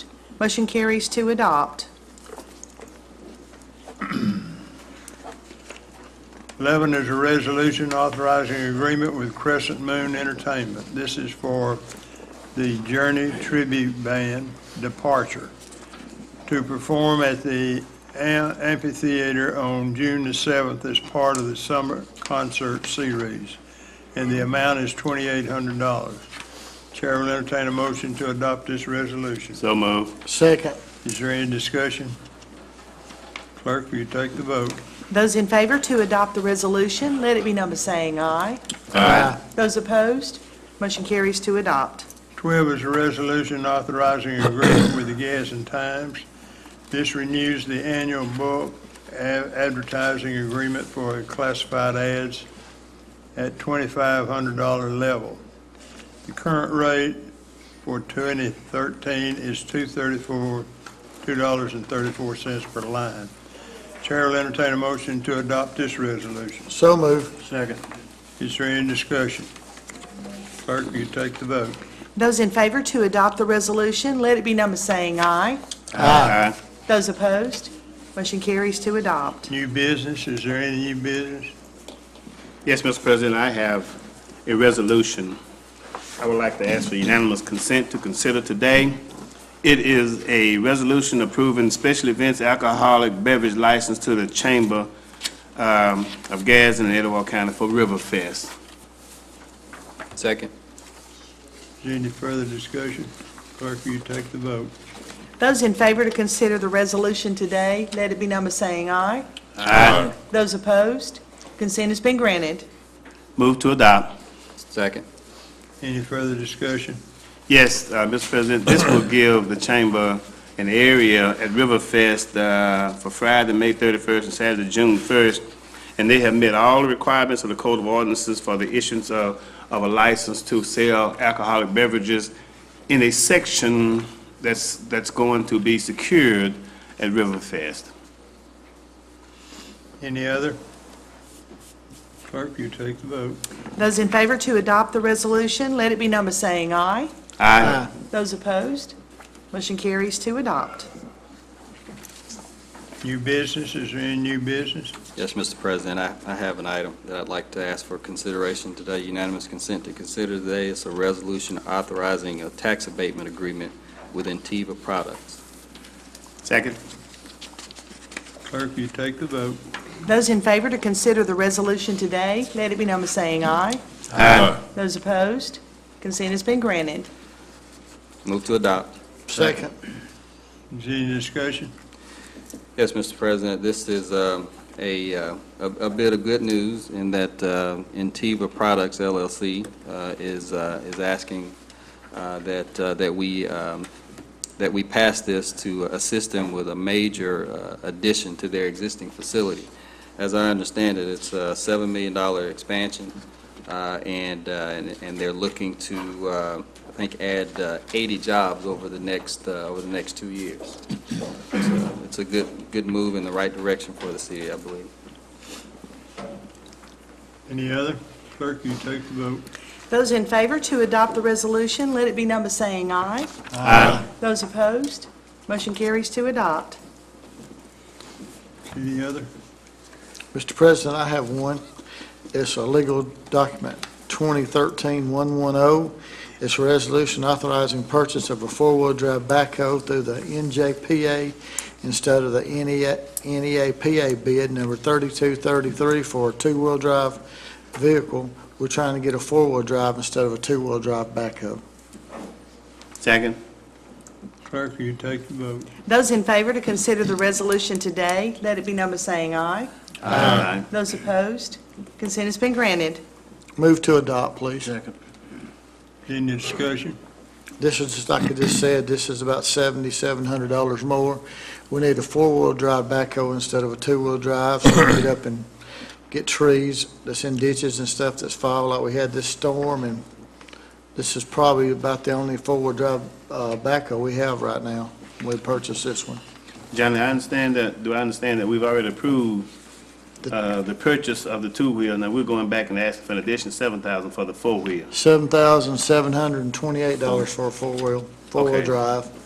Motion carries to adopt. 11 is a resolution authorizing agreement with Crescent Moon Entertainment. This is for the Journey Tribute Band Departure to perform at the am- amphitheater on June the 7th as part of the summer concert series, and the amount is $2,800. Chair will entertain a motion to adopt this resolution. So move. Second. Is there any discussion? Clerk, will you take the vote? Those in favor to adopt the resolution, let it be number saying aye. Those opposed, motion carries to adopt. 12 is a resolution authorizing agreement with the Gas and Times. This renews the annual bulk a- advertising agreement for classified ads at $2,500 level. The current rate for 2013 is 234 $2.34 per line. Chair will entertain a motion to adopt this resolution. So move. Second. Is there any discussion? Clerk, will you take the vote? Those in favor to adopt the resolution, let it be number saying aye. Aye. Those opposed, motion carries to adopt. New business, is there any new business? Yes, Mr. President, I have a resolution I would like to ask for unanimous consent to consider today. It is a resolution approving special events alcoholic beverage license to the Chamber um, of Gas in Etowah County for River Fest. Second. Is there any further discussion? Clerk, will you take the vote? Those in favor to consider the resolution today, let it be number saying aye. Aye. Those opposed, consent has been granted. Move to adopt. Second. Any further discussion? Yes, uh, Mr. President, this will give the chamber an area at Riverfest uh, for Friday, May 31st, and Saturday, June 1st, and they have met all the requirements of the Code of Ordinances for the issuance of of a license to sell alcoholic beverages in a section that's that's going to be secured at Riverfest. Any other? Clerk, will you take the vote? Those in favor to adopt the resolution, let it be number saying aye. Aye. Those opposed, motion carries to adopt. New business, is there any new business? Yes, Mr. President, I I have an item that I'd like to ask for consideration today, unanimous consent to consider today. It's a resolution authorizing a tax abatement agreement with Intiva Products. Second? Clerk, will you take the vote? Those in favor to consider the resolution today, let it be number saying aye. Aye. Those opposed, consent has been granted. Move to adopt. Second. Is there any discussion? Yes, Mr. President, this is um, a uh, a a bit of good news in that uh, Intiva Products LLC uh, is uh, is asking uh, that uh, that we um, that we pass this to assist them with a major uh, addition to their existing facility. As I understand it, it's a $7 million expansion, uh, and uh, and and they're looking to, uh, I think, add uh, 80 jobs over the next, uh, over the next two years. So It's a good, good move in the right direction for the city, I believe. Any other? Clerk, will you take the vote? Those in favor to adopt the resolution, let it be number saying aye. Aye. Those opposed, motion carries to adopt. Any other? Mr. President, I have one. It's a legal document, 2013-110. oh. It's a resolution authorizing purchase of a four-wheel-drive backhoe through the NJPA instead of the E NEA NEAPA bid number 3233 for a two-wheel-drive vehicle. We're trying to get a four-wheel-drive instead of a two-wheel-drive backhoe. Second? Clerk, will you take the vote? Those in favor to consider the resolution today, let it be number saying aye. Aye. Those opposed, consent has been granted. Move to adopt, please. Any discussion? This is, just like I just said, this is about seventy-seven hundred dollars more. We need a four-wheel drive backhoe instead of a two-wheel drive, so we can get up and get trees that's in ditches and stuff that's foul, like we had this storm, and this is probably about the only four-wheel drive, uh, backhoe we have right now. We purchased this one. Johnny, I understand that, do I understand that we've already approved uh, the purchase of the two-wheel, now we're going back and asking for an additional seven thousand for the four-wheel? Seven thousand seven hundred and twenty-eight dollars for a four-wheel, four-wheel Okay. drive.